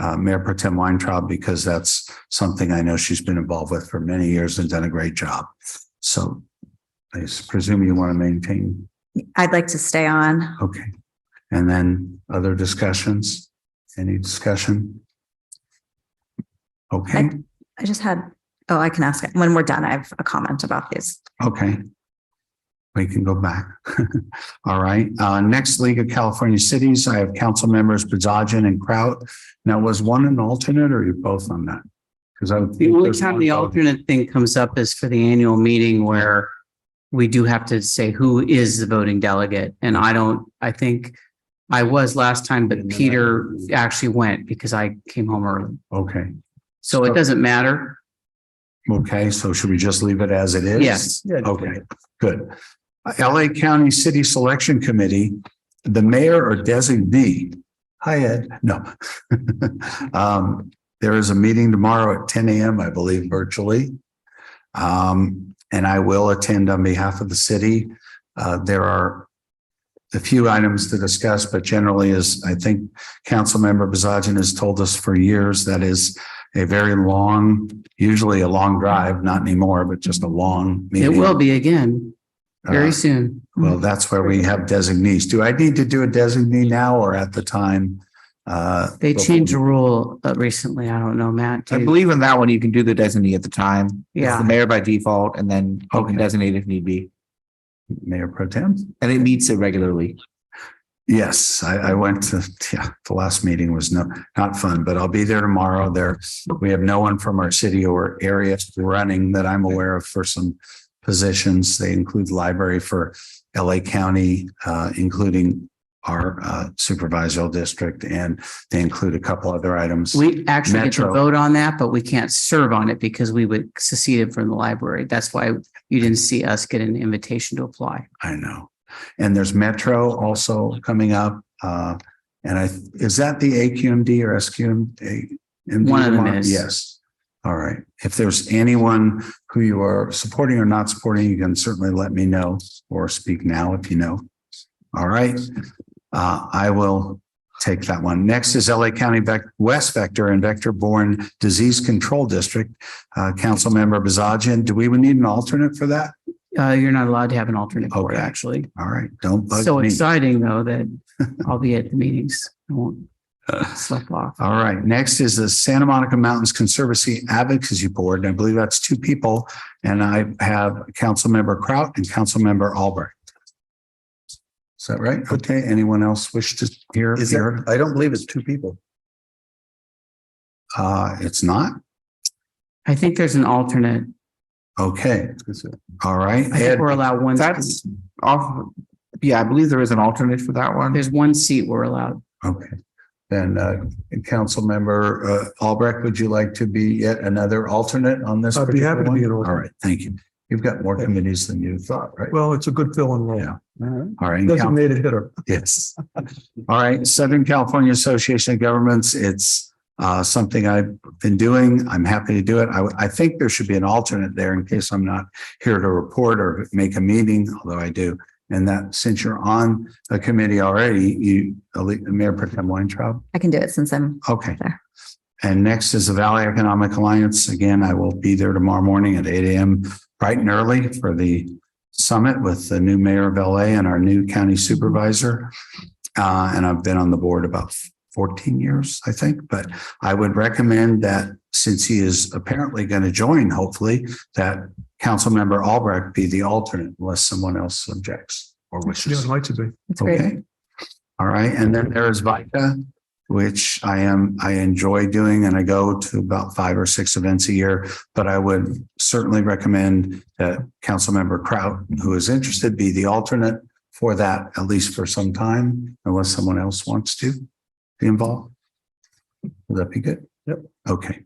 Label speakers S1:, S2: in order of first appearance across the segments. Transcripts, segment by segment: S1: uh, Mayor Pro Tem Weintraub because that's something I know she's been involved with for many years and done a great job. So I presume you want to maintain,
S2: I'd like to stay on.
S1: okay. And then other discussions? Any discussion? Okay,
S2: I just had, oh, I can ask it. When we're done, I have a comment about these.
S1: okay. We can go back. All right, uh, next League of California Cities, I have council members Bazagian and Kraut. Now, was one an alternate or are you both on that? Because I would.
S3: The
S1: think
S3: only
S1: there's
S3: time
S1: one
S3: the
S1: vote.
S3: alternate thing comes up is for the annual meeting where we do have to say who is the voting delegate. And I don't, I think I was last time, but Peter actually went because I came home early.
S1: Okay.
S3: So it doesn't matter.
S1: Okay, so should we just leave it as it is?
S3: Yes.
S1: Okay, good. LA County City Selection Committee, the mayor or designee. Hi, Ed. No. Um, there is a meeting tomorrow at ten AM, I believe, virtually. Um, and I will attend on behalf of the city. Uh, there are a few items to discuss, but generally is, I think Councilmember Bazagian has told us for years, that is a very long, usually a long drive, not anymore, but just a long
S3: It
S1: meeting.
S3: will be again
S1: Uh,
S3: very soon.
S1: Well, that's where we have designees. Do I need to do a designee now or at the time? Uh,
S3: They changed the rule uh, recently. I don't know, Matt.
S4: I
S3: do you-
S4: believe in that one, you can do the designee at the time. It's
S3: Yeah.
S4: The mayor by default and then you
S1: Okay.
S4: can designate if need be.
S1: Mayor Pro Tem?
S4: And it meets it regularly.
S1: Yes, I, I went to, yeah, the last meeting was no, not fun, but I'll be there tomorrow. There, we have no one from our city or area running that I'm aware of for some positions. They include library for LA County, uh, including our uh, supervisory district, and they include a couple other items.
S3: We actually get to
S1: Metro.
S3: vote on that, but we can't serve on it because we would seceded from the library. That's why you didn't see us get an invitation to apply.
S1: I know. And there's Metro also coming up. Uh, and I, is that the AQMD or SQM?
S3: One of them is.
S1: Yes. All right. If there's anyone who you are supporting or not supporting, you can certainly let me know or speak now if you know. All right. Uh, I will take that one. Next is LA County Vec- West Vector and Vector Borne Disease Control District. Uh, Councilmember Bazagian, do we would need an alternate for that?
S3: Uh, you're not allowed to have an alternate for it,
S1: Okay.
S3: actually.
S1: All right. Don't bug
S3: So
S1: me.
S3: exciting, though, that I'll be at the meetings. I won't slip off.
S1: All right, next is the Santa Monica Mountains Conservancy Advocacy Board, and I believe that's two people. And I have Councilmember Kraut and Councilmember Albrecht. Is that right? Okay, anyone else wish to hear?
S5: Is there,
S1: hear?
S5: I don't believe it's two people.
S1: Uh, it's not?
S3: I think there's an alternate.
S1: Okay, all right.
S3: I think
S1: Ed,
S3: we're allowed one.
S4: That's off. Yeah, I believe there is an alternate for that one.
S3: There's one seat we're allowed.
S1: okay. Then, uh, Councilmember uh, Albrecht, would you like to be yet another alternate on this?
S5: I'd be happy
S1: particular
S5: to be an
S1: one?
S5: alternate.
S1: All right, thank you. You've got more committees than you thought, right?
S5: Well, it's a good fill and roll.
S1: Yeah. All right. and Council-
S5: Designated hitter.
S1: Yes. All right, Southern California Association of Governments, it's uh something I've been doing. I'm happy to do it. I I think there should be an alternate there in case I'm not here to report or make a meeting, although I do. And that since you're on a committee already, you, Mayor Pro Tem Weintraub,
S2: I can do it since I'm,
S1: okay.
S2: There.
S1: And next is the Valley Economic Alliance. Again, I will be there tomorrow morning at eight AM, bright and early for the summit with the new mayor of LA and our new county supervisor. Uh, and I've been on the board about fourteen years, I think, but I would recommend that since he is apparently going to join, hopefully, that Councilmember Albrecht be the alternate unless someone else objects or
S5: Yeah,
S1: wishes.
S5: I'd like to be.
S2: it's great.
S1: Okay. All right. And then there is VICA, which I am, I enjoy doing and I go to about five or six events a year. But I would certainly recommend that Councilmember Kraut, who is interested, be the alternate for that, at least for some time, unless someone else wants to be involved. Would that be good?
S5: Yep.
S1: Okay.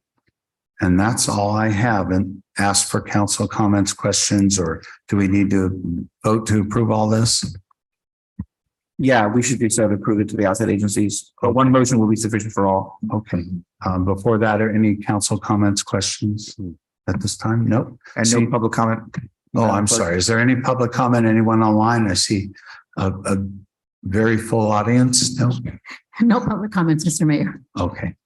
S1: And that's all I have. And ask for council comments, questions, or do we need to vote to approve all this?
S4: Yeah, we should do so to prove it to the outside agencies. But one motion will be sufficient for all.
S1: Okay, um, before that, are any council comments, questions at this time? Nope.
S4: And
S1: See-
S4: no public comment.
S1: Oh, I'm sorry. Is there any public comment? Anyone online? I see a, a very full audience. No?
S2: No public comments, Mr. Mayor.
S1: Okay.